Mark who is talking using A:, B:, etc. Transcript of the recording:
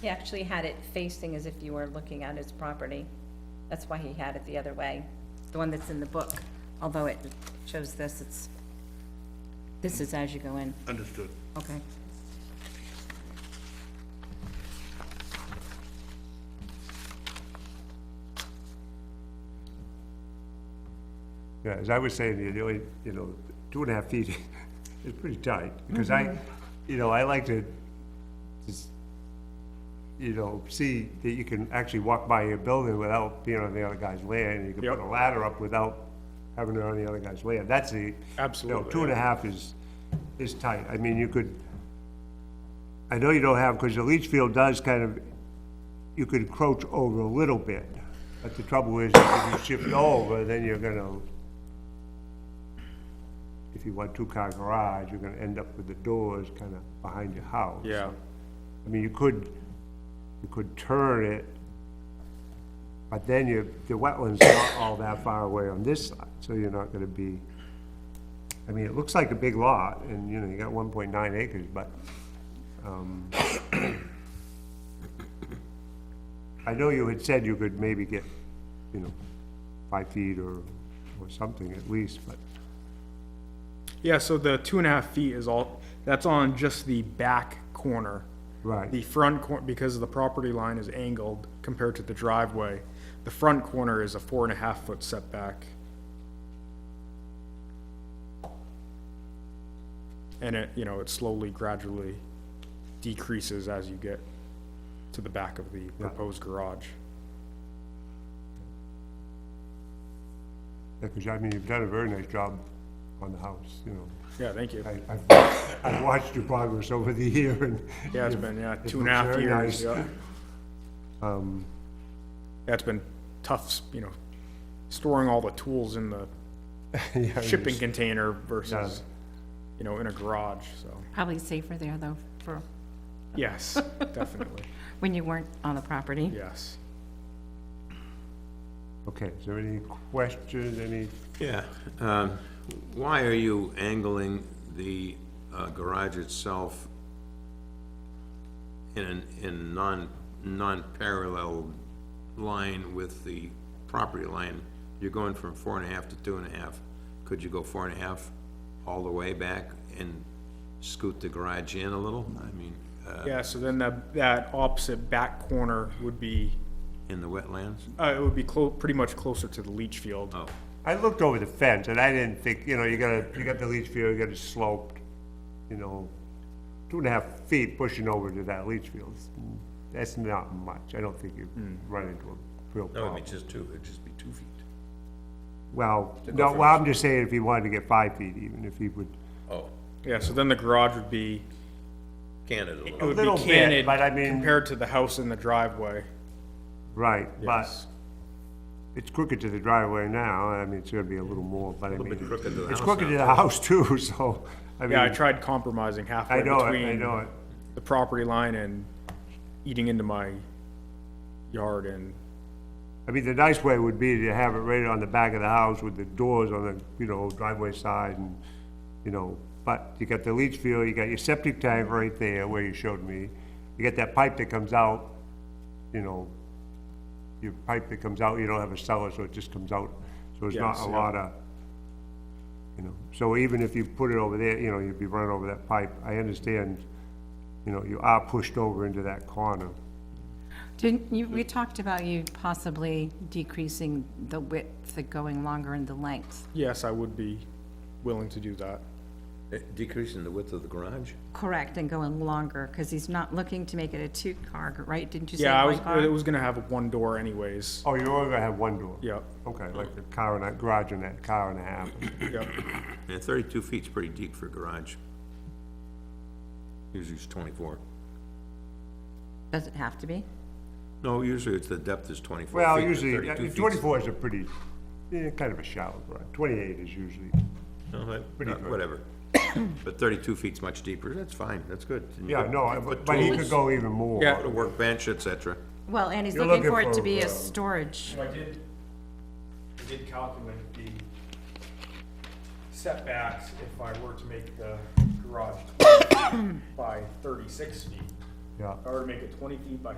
A: He actually had it facing as if you were looking at his property. That's why he had it the other way, the one that's in the book, although it shows this, it's, this is as you go in,
B: Understood.
A: okay.
C: Yeah, as I was saying, you know, you know, two and a half feet is pretty tight, because
D: Mm-hmm.
C: I, you know, I like to just, you know, see that you can actually walk by your building without being on the other guy's land, and you can put
D: Yep.
C: a ladder up without having it on the other guy's land, that's the. You
D: Absolutely,
C: know, two and a
D: yeah.
C: half is, is tight, I mean, you could, I know you don't have, because the leach field does kind of, you could encroach over a little bit, but the trouble is, if you shift over, then you're gonna, if you want two-car garage, you're gonna end up with the doors kind of behind your house.
D: Yeah,
C: I mean, you could, you could turn it, but then you, the wetland's not all that far away on this side, so you're not gonna be, I mean, it looks like a big lot, and, you know, you got one point nine acres, but, um, I know you had said you could maybe get, you know, five feet or, or something at least, but,
D: yeah, so the two and a half feet is all, that's on just the back corner.
C: right.
D: The front cor, because the property line is angled compared to the driveway, the front corner is a four and a half foot setback. And it, you know, it slowly gradually decreases as you get to the back of the proposed garage.
C: Because, I mean, you've done a very nice job on the house, you know.
D: Yeah, thank you.
C: I, I've, I've watched your progress over the year and.
D: Yeah, it's been, yeah,
C: it
D: two and a half
C: looks very
D: years,
C: nice. Um,
D: yeah. That's been tough, s- you know, storing all the tools in the
C: Yeah,
D: shipping
C: it's-
D: container versus, you know, in a garage, so,
A: Probably safer there, though, for,
D: yes, definitely,
A: when you weren't on the property.
D: yes.
C: Okay, is there any questions, any,
E: Yeah, um, why are you angling the uh, garage itself in, an- in non, non-parallel line with the property line? You're going from four and a half to two and a half. Could you go four and a half all the way back and scoot the garage in a little? I mean, uh,
D: Yeah, so then that, that opposite back corner would be,
E: in the wetlands?
D: uh, it would be clo- pretty much closer to the leach field.
E: Oh,
C: I looked over the fence and I didn't think, you know, you gotta, you got the leach field, you got it sloped, you know, two and a half feet pushing over to that leach field, that's not much, I don't think you run into a real
E: no, it'd be
C: problem.
E: just two, it'd just be two feet.
C: Well, no, well, I'm just saying if he wanted to get five feet even, if he would,
E: Oh,
D: Yeah, so then the garage would be,
E: Canada.
D: it would
C: little
D: be
C: bit,
D: canted
C: but I mean-
D: compared to the house in the driveway.
C: right, but
D: Yes.
C: it's crooked to the driveway now, I mean, it's gonna be a little more, but I mean.
E: bit crooked to the
C: It's
E: house
C: crooked
E: now,
C: to the house too, so, I mean.
D: Yeah, I tried compromising halfway
C: I know it, I
D: between.
C: know it.
D: The property line and eating into my yard and,
C: I mean, the nice way would be to have it right on the back of the house with the doors on the, you know, driveway side and, you know, but you got the leach field, you got your septic tank right there where you showed me. You got that pipe that comes out, you know, your pipe that comes out, you don't have a cellar, so it just comes out. So it's not
D: Yes,
C: a
D: yeah.
C: lot of, you know, so even if you put it over there, you know, you'd be running over that pipe. I understand, you know, you are pushed over into that corner.
F: Didn't you, we talked about you possibly decreasing the width, the going longer in the length,
D: yes, I would be willing to do that.
E: Uh, Decreasing the width of the garage?
F: correct, and going longer, because he's not looking to make it a two-car, right? Didn't you say
D: Yeah, I
F: one
D: was,
F: car?
D: it was gonna have one door anyways.
C: Oh, you're only gonna have one door?
D: Yep,
C: Okay, like the car and a, garage and that car and a half.
D: yep.
E: And thirty-two feet's pretty deep for a garage. Usually it's twenty-four.
F: Does it have to be?
E: No, usually it's the depth is twenty-four feet.
C: Well,
E: and
C: usually,
E: 32
C: uh,
E: feet's-
C: twenty-four is a pretty, eh, kind of a shallow garage. Twenty-eight is usually,
E: No, that-
C: pretty
E: uh,
C: good.
E: Whatever. But thirty-two feet's much deeper, that's fine, that's good. And you
C: yeah,
E: could-
C: no, I-
E: you
C: but
E: put
C: but he
E: tools,
C: could go even more.
D: Yeah.
E: Put a workbench, et cetera.
F: Well, and he's
C: You're
F: looking for
C: looking
F: it to be
C: for,
F: a
C: uh,
F: storage,
D: So I did, I did calculate the setbacks if I were to make the garage by thirty-six feet.
G: yeah.
D: If I were to make it twenty feet by